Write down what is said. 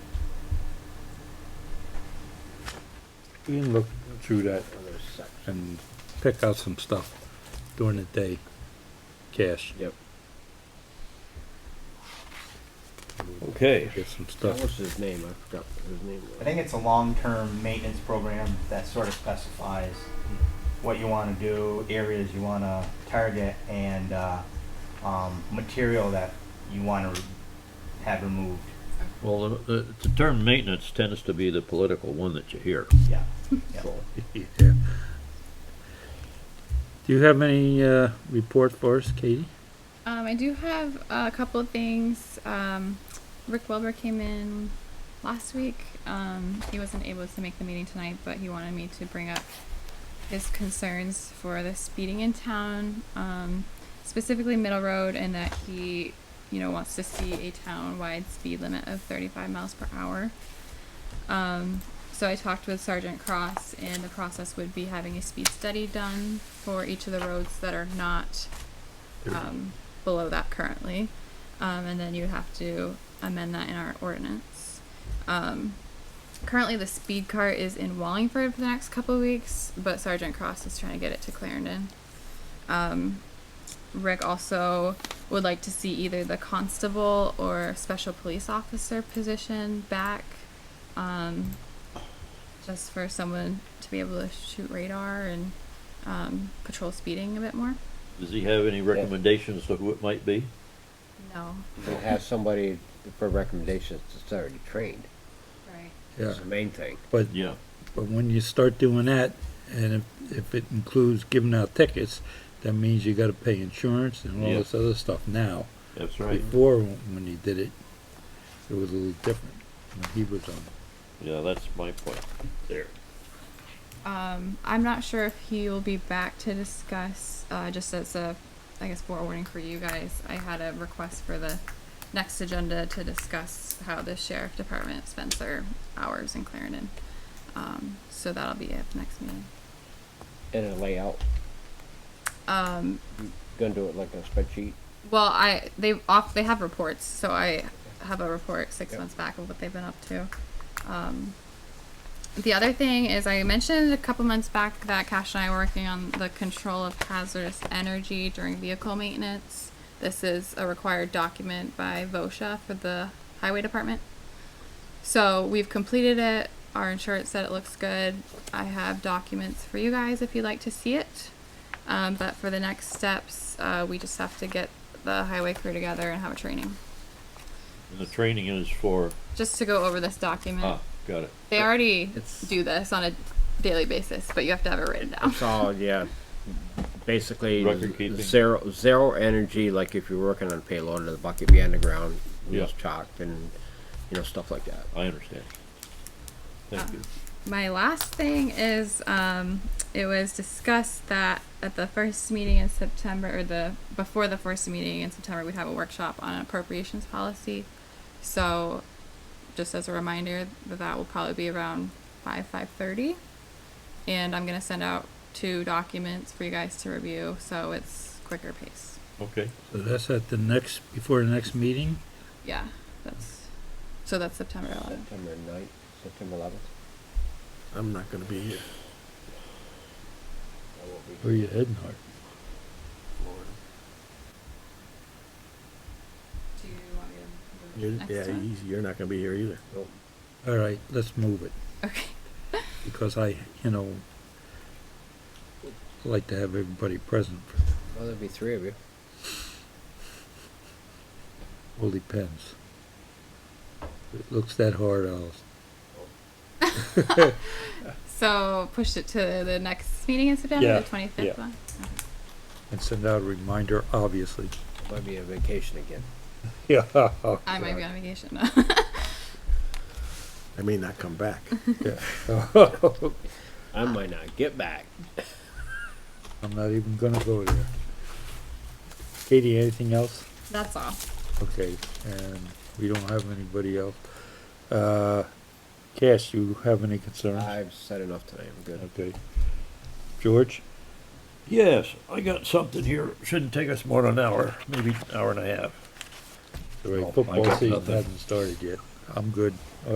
we can look through that and pick out some stuff during the day, cash, Yep. Okay, get some stuff. What was his name? I forgot what his name was. I think it's a long-term maintenance program that sort of specifies what you want to do, areas you want to target, and uh, um, material that you want to have removed. well, the- the, the term maintenance tends to be the political one that you hear. Yeah. yeah. Yeah. Do you have any, uh, report for us, Katie? Um, I do have a couple of things. Um, Rick Wilbur came in last week. Um, he wasn't able to make the meeting tonight, but he wanted me to bring up his concerns for the speeding in town, um, specifically Middle Road, and that he, you know, wants to see a town-wide speed limit of 35 miles per hour. Um, so I talked with Sergeant Cross, and the process would be having a speed study done for each of the roads that are not um, below that currently. Um, and then you have to amend that in our ordinance. Um, currently, the speed cart is in Wallingford for the next couple of weeks, but Sergeant Cross is trying to get it to Clarendon. Um, Rick also would like to see either the constable or special police officer position back, um, just for someone to be able to shoot radar and um, patrol speeding a bit more. Does he have any recommendations of who it might be? No, And have somebody for recommendations that's already trained. right. Yeah, That's the main thing. but, Yeah. but when you start doing that, and if, if it includes giving out tickets, that means you gotta pay insurance and all Yeah. this other stuff now. That's right. Before, when he did it, it was a little different, when he was on. Yeah, that's my point there. Um, I'm not sure if he will be back to discuss. Uh, just as a, I guess, forewarning for you guys, I had a request for the next agenda to discuss how the sheriff department spends their hours in Clarendon. Um, so that'll be it for next meeting. And a layout. Um, Gonna do it like a spreadsheet. well, I they off they have reports, so I have a report six Yep. months back of what they've been up to. Um, the other thing is, I mentioned a couple months back that Cash and I were working on the control of hazardous energy during vehicle maintenance. This is a required document by VOSHA for the highway department. So we've completed it. Our insurance said it looks good. I have documents for you guys if you'd like to see it. Um, but for the next steps, uh, we just have to get the highway crew together and have a training And the training is for, just to go over this document. ah, got it. They already It's- do this on a daily basis, but you have to have it written down. It's all, yeah. Basically, Record z- keeping. zero zero energy. Like if you're working on a payload, the bucket be underground, wheels Yeah. chalked, and you know stuff like that. I understand. Thank you. My last thing is um, it was discussed that at the first meeting in September, or the before the first meeting in September, we'd have a workshop on appropriations policy. So, just as a reminder, that that will probably be around five five thirty, and I'm gonna send out two documents for you guys to review, so it's quicker pace. Okay, So that's at the next, before the next meeting? Yeah, that's so that's September 11th. September 9th, September 11th. I'm not gonna be here. Where you heading, Art? Do you want me to You're, move next yeah, one? he's- you're not gonna be here either. All right, let's move it, Okay. because I, you know, like to have everybody present. Well, there'll be three of you. Well, depends. If it looks that hard, I'll, So push it to the next meeting in September, Yeah, the 25th yeah. one? Okay. and send out a reminder, obviously. Might be on vacation again. Yeah. I might be on vacation. I may not come back. I might not get back. I'm not even gonna go there. Katie, anything else? That's all. Okay, and we don't have anybody else. Uh, Cash, you have any concerns? I've said enough tonight. I'm good. Okay. George? Yes, I got something here. Shouldn't take us more than an hour, maybe an hour and a half. The Oh, I football got season nothing. hasn't started yet. I'm good.